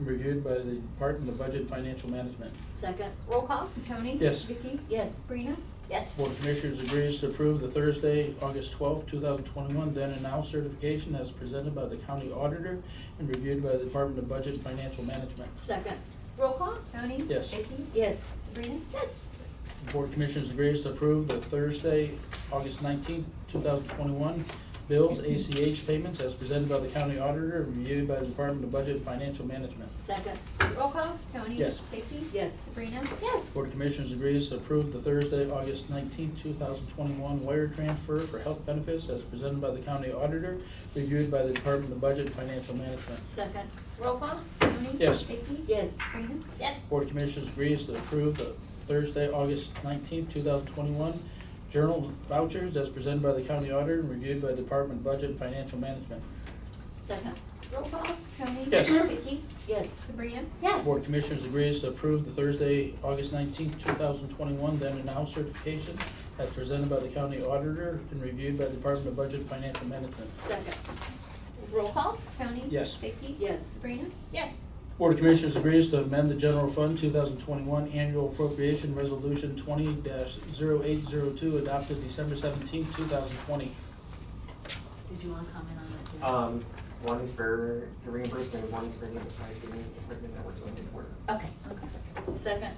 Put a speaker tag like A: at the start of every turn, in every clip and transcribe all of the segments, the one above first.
A: reviewed by the Department of Budget and Financial Management.
B: Second,
C: Roll call?
D: Tony?
A: Yes.
D: Vicky?
B: yes.
D: Sabrina?
C: Yes.
A: Board of Commissioners agrees to approve the Thursday, August twelfth, two thousand twenty-one, then and now certification as presented by the county auditor and reviewed by the Department of Budget and Financial Management.
B: Second,
C: Roll call?
D: Tony?
A: Yes.
D: Vicky?
B: yes.
D: Sabrina?
C: Yes.
A: The Board of Commissioners agrees to approve the Thursday, August nineteenth, two thousand twenty-one, bills, ACH payments as presented by the county auditor and reviewed by the Department of Budget and Financial Management.
B: Second,
C: Roll call?
D: Tony?
A: Yes.
D: Vicky?
B: yes.
D: Sabrina?
C: Yes.
A: Board of Commissioners agrees to approve the Thursday, August nineteenth, two thousand twenty-one wire transfer for health benefits as presented by the county auditor, reviewed by the Department of Budget and Financial Management.
B: Second,
C: Roll call?
D: Tony?
A: Yes.
D: Vicky?
B: yes.
D: Sabrina?
C: Yes.
A: Board of Commissioners agrees to approve the Thursday, August nineteenth, two thousand twenty-one journal vouchers as presented by the county auditor and reviewed by the Department of Budget and Financial Management.
B: Second,
C: Roll call?
D: Tony?
A: Yes.
C: Vicky?
B: yes.
D: Sabrina?
C: Yes.
A: Board of Commissioners agrees to approve the Thursday, August nineteenth, two thousand twenty-one then and now certification as presented by the county auditor and reviewed by the Department of Budget and Financial Management.
B: Second,
C: Roll call?
D: Tony?
A: Yes.
D: Vicky?
B: yes.
D: Sabrina?
C: Yes.
A: Board of Commissioners agrees to amend the General Fund 2021 Annual Appropriation Resolution 20-0802 adopted December 17, 2020.
B: Did you want to comment on that? Jim?
E: Um, one is for the reimbursement, and one is for the enterprise giving equipment that we're doing to order.
B: Okay, okay. Second,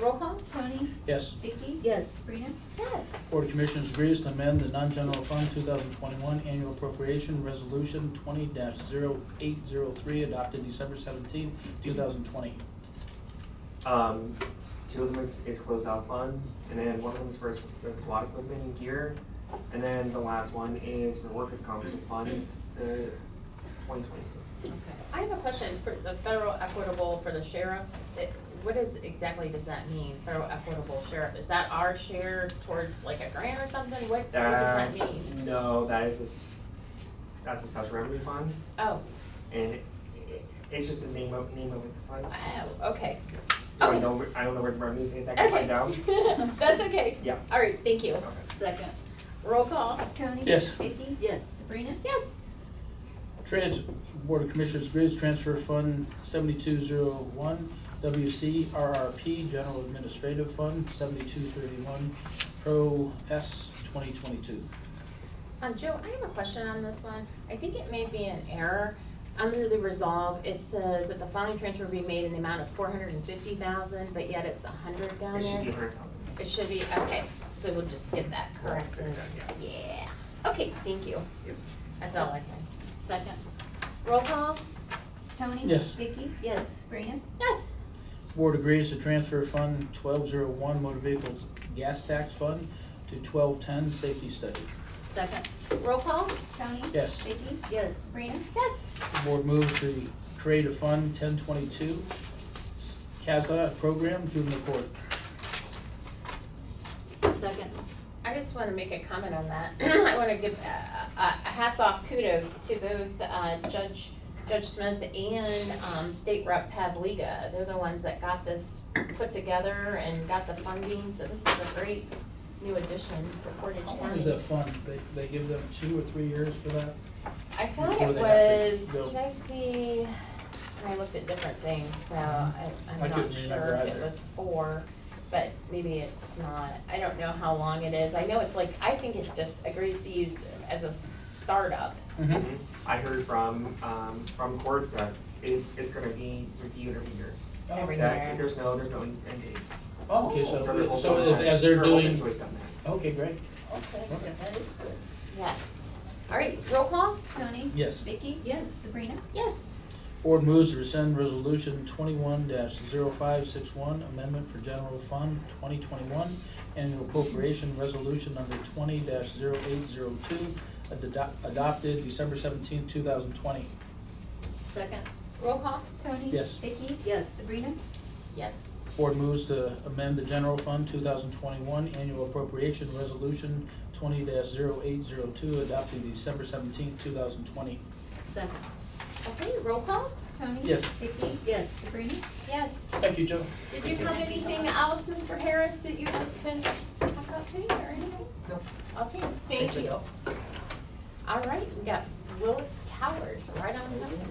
C: Roll call?
D: Tony?
A: Yes.
D: Vicky?
B: yes.
D: Sabrina?
C: Yes.
A: Board of Commissioners agrees to amend the Non-General Fund 2021 Annual Appropriation Resolution 20-0803 adopted December 17, 2020.
E: Um, two of them is, is closeout funds, and then one of them is for s- for SWAT equipment and gear. And then the last one is for workers' compensation fund, the twenty twenty-two.
B: Okay.
F: I have a question for the federal equitable for the sheriff. It- What is, exactly does that mean, federal equitable sheriff? Is that our share towards like a grant or something? What, what does that mean?
E: No, that is a, s- that's a special revenue fund,
F: Oh,
E: and it, it- it's just the name of, name of the fund.
F: oh, okay.
E: I don't
F: Okay.
E: know, where- I don't know where the revenue is, I can
F: Okay.
E: find out.
F: That's okay.
E: Yeah.
F: All right, thank you.
B: Second,
F: Roll call.
D: Tony?
A: Yes.
D: Vicky?
B: yes.
D: Sabrina?
F: Yes.
A: Trans, Board of Commissioners agrees to transfer Fund 7201, WCRRP, General Administrative Fund 7231, Pro S 2022.
F: Um, Joe, I have a question on this one. I think it may be an error. Under the resolve, it says that the following transfer be made in the amount of four hundred and fifty thousand, but yet it's a hundred down
E: It should
F: there.
E: be a hundred thousand.
F: It should be, okay, so we'll just get that correct.
E: Correct, yeah.
F: Yeah, okay, thank you.
E: Yep.
F: That's all I had.
B: Second,
F: Roll call?
D: Tony?
A: Yes.
D: Vicky?
B: yes.
D: Sabrina?
F: Yes.
A: Board agrees to transfer Fund 1201, Motor Vehicles Gas Tax Fund, to 1210, Safety Study.
B: Second,
F: Roll call?
D: Tony?
A: Yes.
D: Vicky?
B: yes.
D: Sabrina?
F: Yes.
A: The Board moves to create a Fund 1022, s- CASA Program, Juvenile Court.
B: Second,
F: I just want to make a comment on that. I want to give uh, uh, hats off kudos to both uh, Judge, Judge Smith and um, State Rep Pavliga. They're the ones that got this put together and got the funding, so this is a great new addition for Portage
A: How
F: County.
A: long is that fund? They, they give them two or three years for that?
F: I thought
A: Before
F: it
A: they have to
F: was,
A: go.
F: can I see, and I looked at different things, so I,
A: I
F: I'm not
A: couldn't remember
F: sure if it
A: either.
F: was four, but maybe it's not, I don't know how long it is, I know it's like, I think it's just agrees to use as a startup.
E: Mm-hmm.
A: Mhm.
F: Hmm?
E: I heard from, um, from courts that it, it's gonna be reviewed every year.
F: Every
E: That,
F: year.
E: there's no, there's no end date.
A: Oh, Okay, so,
E: So they're hoping-
A: so as they're
E: They're hoping
A: doing,
E: to extend that.
A: okay, great,
F: Okay,
A: Okay.
F: that is good. Yes, all right, roll call?
D: Tony?
A: yes.
D: Vicky?
B: yes.
D: Sabrina?
F: Yes.
A: Board moves to rescind resolution twenty-one 561 amendment for general fund twenty twenty-one, annual appropriation resolution number twenty 802 adopted December seventeenth, two thousand twenty.
B: Second,
F: Roll call?
D: Tony?
A: Yes.
D: Vicky?
B: yes.
D: Sabrina?
F: Yes.
A: Board moves to amend the general fund two thousand twenty-one, annual appropriation resolution twenty 802 adopted December seventeenth, two thousand twenty.
B: Second,
F: Okay, roll call?
D: Tony?
A: Yes.
D: Vicky?
B: yes.
D: Sabrina?
F: Yes.
A: Thank you, Joe.
F: Did you have anything else, Mr. Harris, that you can talk about today or anything?
E: No.
F: Okay, thank you. All right, we got Willis Towers right on the number.